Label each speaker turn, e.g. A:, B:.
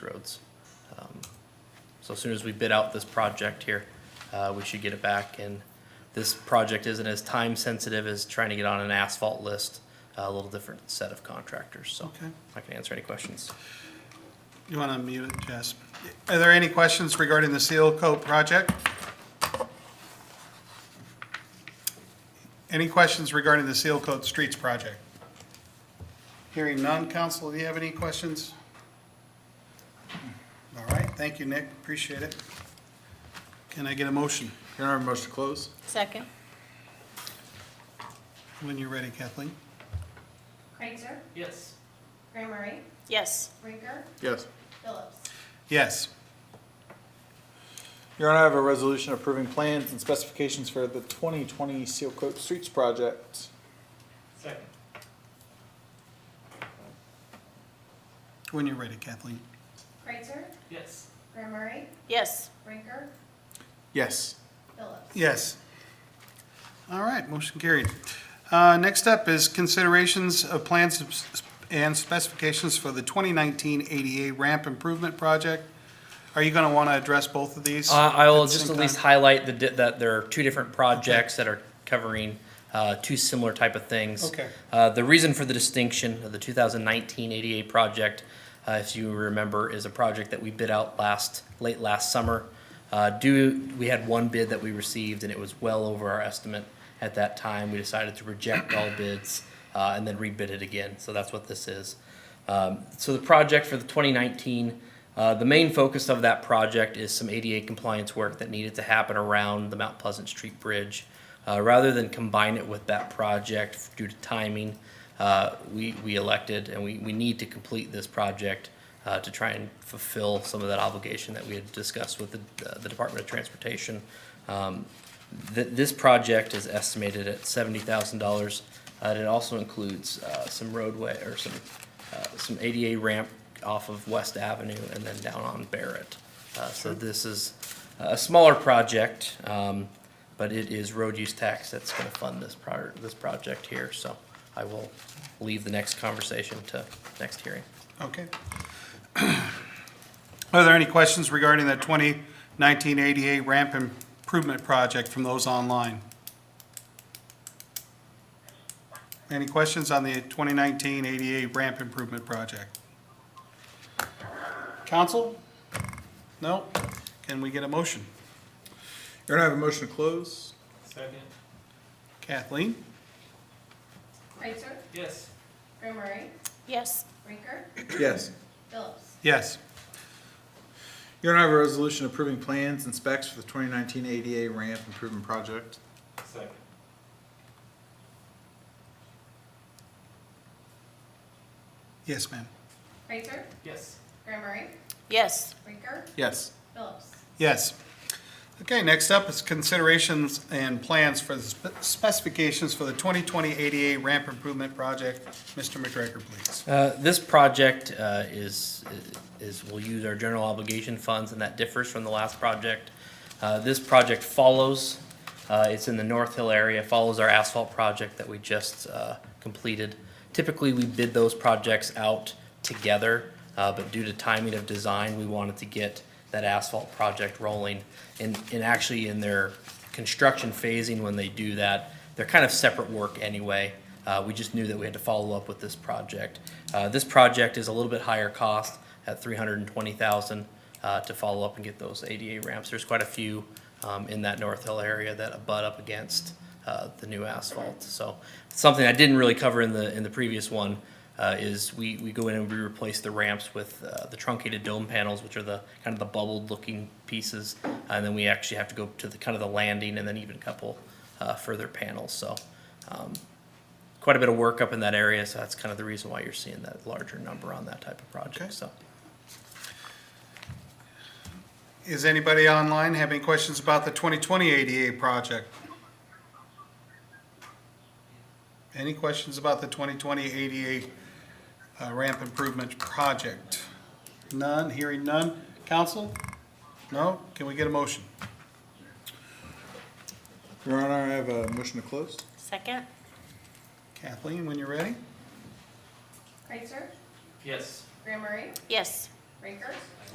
A: roads. Um, So as soon as we bid out this project here, uh, we should get it back. And this project isn't as time-sensitive as trying to get on an asphalt list, uh, a little different set of contractors, so
B: Okay.
A: I can answer any questions.
B: You want to mute it, Jess? Are there any questions regarding the Seal Coat project? Any questions regarding the Seal Coat Streets project? Hearing none, council, do you have any questions? All right, thank you, Nick, appreciate it. Can I get a motion
C: Your Honor, motion to close?
D: Second.
B: when you're ready, Kathleen?
E: Kreitzer,
A: Yes.
E: Graham Murray,
D: Yes.
E: Rinker,
C: Yes.
E: Phillips.
B: Yes.
C: Your Honor, I have a resolution approving plans and specifications for the 2020 Seal Coat Streets project.
A: Second.
B: When you're ready, Kathleen.
E: Kreitzer,
A: Yes.
E: Graham Murray,
D: Yes.
E: Rinker,
C: Yes.
E: Phillips.
B: Yes. All right, motion carried. Uh, Next up is considerations of plans and specifications for the 2019 ADA ramp improvement project. Are you going to want to address both of these?
A: Uh, I will
B: the
A: just
B: same
A: at least
B: time?
A: highlight the, di- that there are two different projects that are covering, uh, two similar type of things.
B: Okay.
A: Uh, the reason for the distinction of the 2019 ADA project, uh, if you remember, is a project that we bid out last, late last summer. Uh, due, we had one bid that we received and it was well over our estimate at that time. We decided to reject all bids, uh, and then rebid it again. So that's what this is. Um, so the project for the 2019, uh, the main focus of that project is some ADA compliance work that needed to happen around the Mount Pleasant Street Bridge. Uh, rather than combine it with that project due to timing, uh, we, we elected and we, we need to complete this project uh, to try and fulfill some of that obligation that we had discussed with the, the Department of Transportation. Um, th- this project is estimated at seventy thousand dollars. uh, and it also includes uh, some roadway or some uh, some ADA ramp off of West Avenue and then down on Barrett. Uh, So this is a smaller project, um, but it is road use tax that's gonna fund this prior, this project here. So I will leave the next conversation to next hearing.
B: Okay. Are there any questions regarding the 2019 ADA ramp improvement project from those online? Any questions on the 2019 ADA ramp improvement project? Council? No? Can we get a motion?
C: Your Honor, I have a motion to close?
B: Kathleen?
E: Kreitzer,
A: Yes.
E: Graham Murray,
D: Yes.
E: Rinker,
C: Yes.
E: Phillips.
B: Yes.
C: Your Honor, I have a resolution approving plans and specs for the 2019 ADA ramp improvement project.
B: Yes, ma'am.
E: Kreitzer,
A: Yes.
E: Graham Murray,
D: Yes.
E: Rinker,
C: Yes.
E: Phillips.
B: Yes. Okay, next up is considerations and plans for the spe- specifications for the 2020 ADA ramp improvement project. Mr. McGregor, please.
A: Uh, This project uh, is, is, will use our general obligation funds, and that differs from the last project. Uh, This project follows, uh, it's in the North Hill area, follows our asphalt project that we just uh, completed. Typically, we bid those projects out together, uh, but due to timing of design, we wanted to get that asphalt project rolling. And, and actually, in their construction phasing, when they do that, they're kind of separate work anyway. Uh, we just knew that we had to follow up with this project. Uh, this project is a little bit higher cost at three hundred and twenty thousand, uh, to follow up and get those ADA ramps. There's quite a few, um, in that North Hill area that butt up against, uh, the new asphalt. So something I didn't really cover in the, in the previous one, uh, is we, we go in and we replace the ramps with, uh, the truncated dome panels, which are the, kind of the bubbled looking pieces. Uh, And then we actually have to go to the, kind of the landing and then even a couple, uh, further panels. So, um, quite a bit of work up in that area, so that's kind of the reason why you're seeing that larger number on that type of
B: Okay.
A: project, so.
B: Is anybody online have any questions about the 2020 ADA project? Any questions about the 2020 ADA uh, ramp improvement project? None, hearing none. Council? No? Can we get a motion?
C: Your Honor, I have a motion to close?
D: Second.
B: Kathleen, when you're ready?
E: Kreitzer,
A: Yes.
E: Graham Murray,
D: Yes.
E: Raker.